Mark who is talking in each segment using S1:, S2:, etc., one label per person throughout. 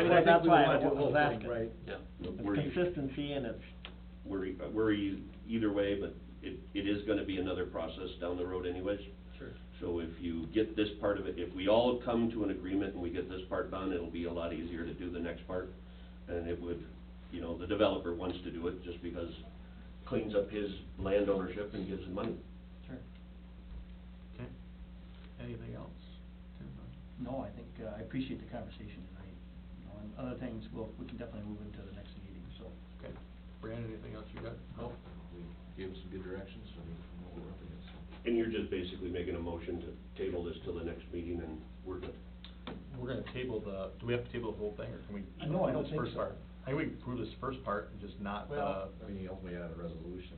S1: what- that's why I was
S2: I think
S1: asking.
S2: we wanna do
S1: Yeah.
S3: But
S1: It's
S3: we're-
S1: consistency and it's,
S3: We're, e- we're e- either way, but it, it is gonna be another process down the road anyways.
S2: the whole thing,
S3: So if you get this part of it, if we all come to an agreement and we get this part done, it'll be a lot easier to do the next part. And it would, you know, the developer wants to do it just because cleans up his land ownership and gives him money.
S2: Sure, sure.
S4: Okay. Anything else?
S2: No, I think, uh, I appreciate the conversation tonight. You know, and other things, we'll, we can definitely move into the next meeting, so.
S4: Okay. Brandon, anything else you got?
S5: Well, we gave them some good directions, so we know what we're up against, so.
S3: And you're just basically making a motion to table this till the next meeting and we're good.
S4: We're gonna table the, do we have to table the whole thing, or can we?
S2: Uh, no, I don't
S4: this
S2: think
S4: first
S2: so.
S4: part? I think we can prove this first part and just not the,
S2: Well-
S5: I mean, you ultimately had a resolution,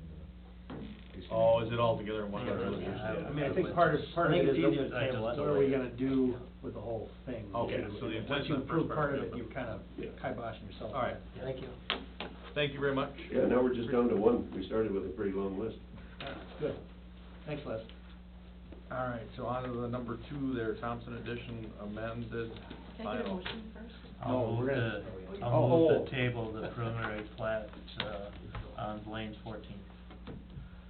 S5: uh. it's gonna
S4: oh,
S5: be-
S4: is it all together in one?
S5: Yeah,
S4: resolution?
S5: yeah.
S6: I mean, I think part of, part of
S1: I think
S6: it is,
S1: it's easier to table
S6: the-
S1: it.
S6: what are we gonna do with the whole thing?
S4: Okay, so the
S6: Once
S4: intention
S6: you
S4: of the first
S6: approve part of it,
S4: part, yeah.
S6: you kind of
S3: Yeah.
S6: kiboshing yourself.
S4: All right.
S1: thank you.
S4: Thank you very much.
S3: Yeah, now we're just down to one. We started with a pretty long list.
S6: Good. Thanks, Les.
S4: All right, so on to the number two there, Thompson Edition amended
S7: Can I get a
S4: final.
S7: motion first?
S4: No,
S8: I'll move the,
S4: we're
S6: gonna-
S8: I'll move
S6: Oh.
S8: the table, the preliminary plat, uh, on Blaine's fourteen.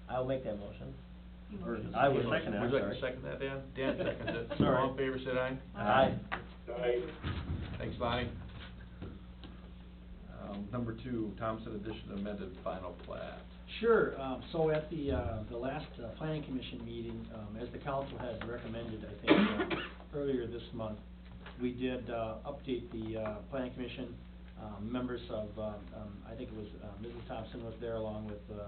S1: I'll make that motion.
S7: You
S1: Or-
S7: motion.
S1: I would second that,
S4: Would you like
S1: sorry.
S4: to second that, Dan? Dan seconded it.
S1: Sorry.
S4: All in favor, said aye.
S1: Aye.
S4: Thanks, Lonnie. Um, number two, Thompson Edition amended final plat.
S2: Sure, um, so at the, uh, the last uh, planning commission meeting, um, as the council had recommended, I think, uh, earlier this month, we did, uh, update the, uh, planning commission, um, members of, um, um, I think it was, uh, Mrs. Thompson was there along with, uh,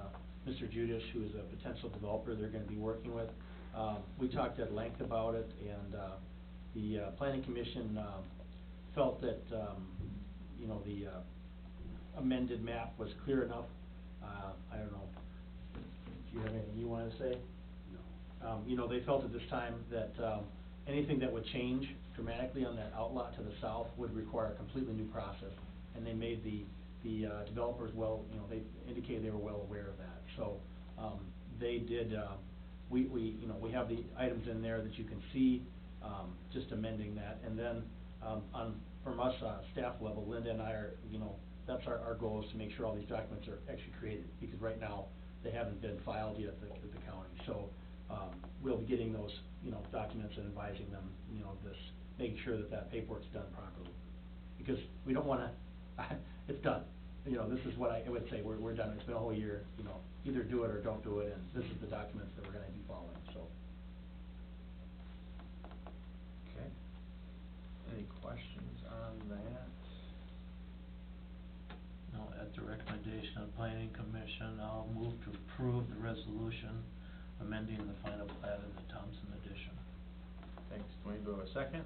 S2: Mr. Judas, who is a potential developer they're gonna be working with. Um, we talked at length about it, and, uh, the, uh, planning commission, um, felt that, um, you know, the, uh, amended map was clear enough. Uh, I don't know, do you have anything you wanna say? No. Um, you know, they felt at this time that, um, anything that would change dramatically on that outlot to the south would require a completely new process. And they made the, the uh, developers well, you know, they indicated they were well aware of that. So, um, they did, um, we, we, you know, we have the items in there that you can see, um, just amending that. And then, um, on, from us, uh, staff level, Linda and I are, you know, that's our, our goal is to make sure all these documents are actually created, because right now, they haven't been filed yet at the, at the county. So, um, we'll be getting those, you know, documents and advising them, you know, this, making sure that that paperwork's done properly. Because we don't wanna, it's done, you know, this is what I would say, we're, we're done, it's been a whole year, you know, either do it or don't do it, and this is the documents that we're gonna be following, so.
S4: Okay. Any questions on that?
S8: Now, at the recommendation of planning commission, I'll move to approve the resolution amending the final plat of the Thompson edition.
S4: Thanks, Dwayne, do I have a second?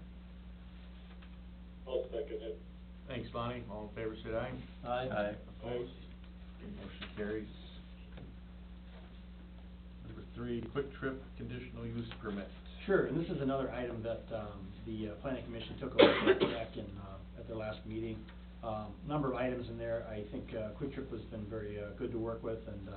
S9: I'll second it.
S4: Thanks, Lonnie, all in favor, say aye.
S1: Aye.
S8: Aye.
S4: Opposed? Motion carries. Number three, Quick Trip conditional use permit.
S2: Sure, and this is another item that um, the uh, planning commission took a look at back in, uh, at their last meeting. Um, Number of items in there, I think uh, Quick Trip has been very uh, good to work with, and uh,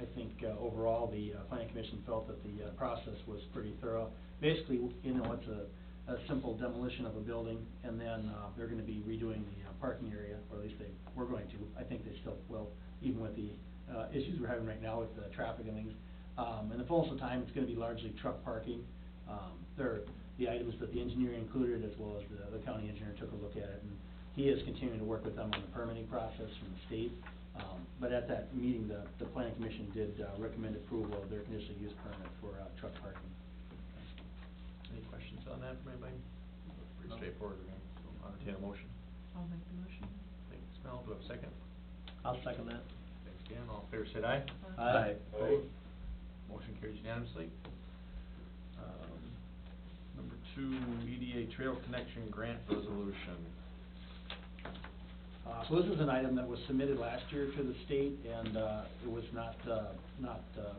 S2: I think uh, overall, the uh, planning commission felt that the uh, process was pretty thorough. Basically, you know, it's a, a simple demolition of a building, and then uh, they're gonna be redoing the uh, parking area, or at least they were going to. I think they still will, even with the uh, issues we're having right now with the traffic and things. Um, And the fullness of time, it's gonna be largely truck parking. Um, There, the items that the engineer included, as well as the, the county engineer took a look at it, and he is continuing to work with them on the permitting process from the state. Um, But at that meeting, the, the planning commission did uh, recommend approval of their conditional use permit for uh, truck parking.
S4: Any questions on that from anybody? Pretty
S2: No.
S4: straightforward, right? So I'll entertain a motion.
S7: I'll make the motion.
S4: Thanks, Mel, do I have a second?
S1: I'll second that.
S4: Thanks, Dan, all in favor, say aye.
S7: Uh,
S1: Aye.
S4: Opposed? Motion carries unanimously. Um, Number two, EDA Trail Connection Grant Resolution.
S2: Uh, So this is an item that was submitted last year to the state, and uh, it was not, uh, not uh,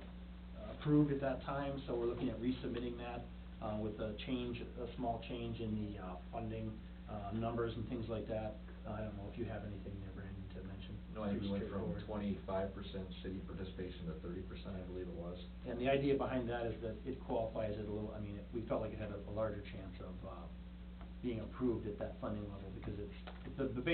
S2: approved at that time, so we're looking at resubmitting that uh, with a change, a small change in the uh, funding uh, numbers and things like that. I don't know if you have anything there, Brandon, to mention.
S5: No, I think we went from
S2: Straightforward.
S5: twenty-five percent city participation to thirty percent, I believe it was.
S2: And the idea behind that is that it qualifies it a little, I mean, it- we felt like it had a a larger chance of uh, being approved at that funding level, because it's, the, the base